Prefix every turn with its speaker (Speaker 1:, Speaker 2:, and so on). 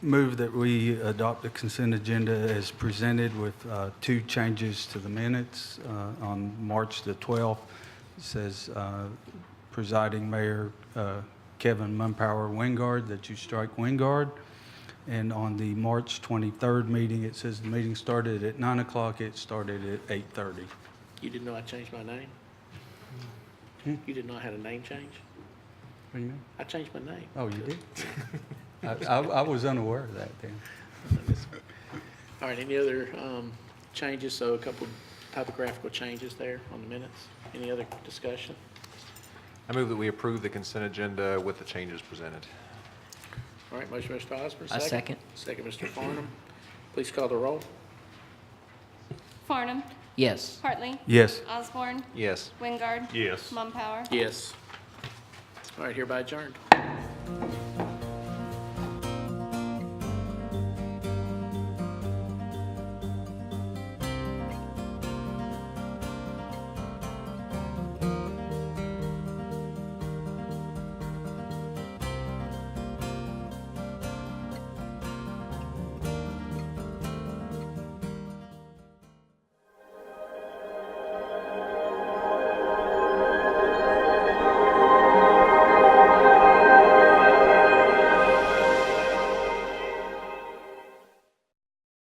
Speaker 1: Move that we adopt the consent agenda as presented with uh, two changes to the minutes. Uh, On March the 12th, it says uh, presiding mayor uh, Kevin Mumpower Wingard, that you strike Wingard. And on the March 23rd meeting, it says the meeting started at 9 o'clock, it started at 8:30.
Speaker 2: You didn't know I changed my name?
Speaker 1: Hmm.
Speaker 2: You didn't know I had a name change?
Speaker 1: What do you mean?
Speaker 2: I changed my name.
Speaker 1: Oh, you did? I- I I was unaware of that then.
Speaker 2: All right, any other um, changes? So a couple typographical changes there on the minutes. Any other discussion?
Speaker 3: I move that we approve the consent agenda with the changes presented.
Speaker 2: All right, motion, Mr. Osborne.
Speaker 4: I
Speaker 2: Second, Mr. Farnum. Please call the roll.
Speaker 5: Farnum.
Speaker 4: Yes.
Speaker 5: Hartley.
Speaker 1: Yes.
Speaker 5: Osborne.
Speaker 3: Yes.
Speaker 5: Wingard.
Speaker 3: Yes.
Speaker 5: Mumpower.
Speaker 2: Yes. All right, hereby adjourned.